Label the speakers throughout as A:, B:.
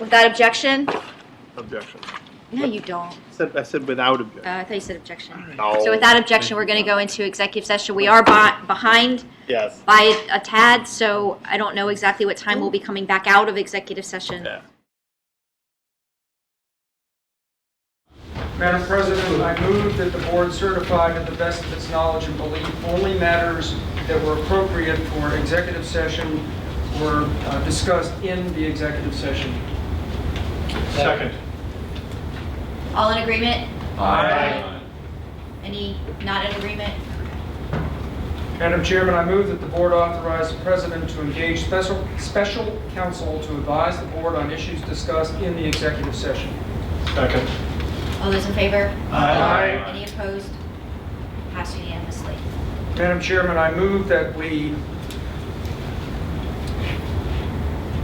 A: Without objection?
B: Objection.
A: No, you don't.
B: Said, I said without
A: Uh,
B: objection.
A: I thought you said objection.
B: No.
A: So without objection, we're going to go into executive session. We are bi- behind
B: Yes.
A: by a tad, so I don't know exactly what time we'll be coming back out of executive session.
B: Yeah.
C: Madam President, I move that the board certify to the best of its knowledge and belief only matters that were appropriate for executive session were uh, discussed in the executive session.
B: Second.
A: All in agreement?
C: Aye.
A: Any not in agreement?
C: Madam Chairman, I move that the board authorize the president to engage special, special counsel to advise the board on issues discussed in the executive session.
B: Second.
A: All those in favor?
C: Aye.
A: Any opposed? Passed unanimously.
C: Madam Chairman, I move that we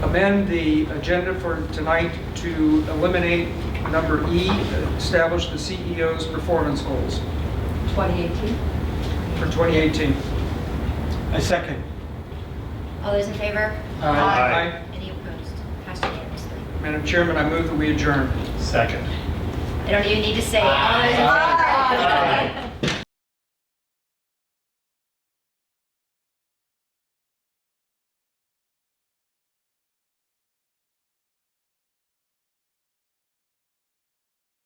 C: amend the agenda for tonight to eliminate number E, establish the CEO's performance goals
D: 2018?
C: for 2018.
E: I second.
A: All those in favor?
C: Aye.
A: Any opposed? Passed unanimously.
C: Madam Chairman, I move that we adjourn.
B: Second.
A: I don't even need to say it. All those in favor?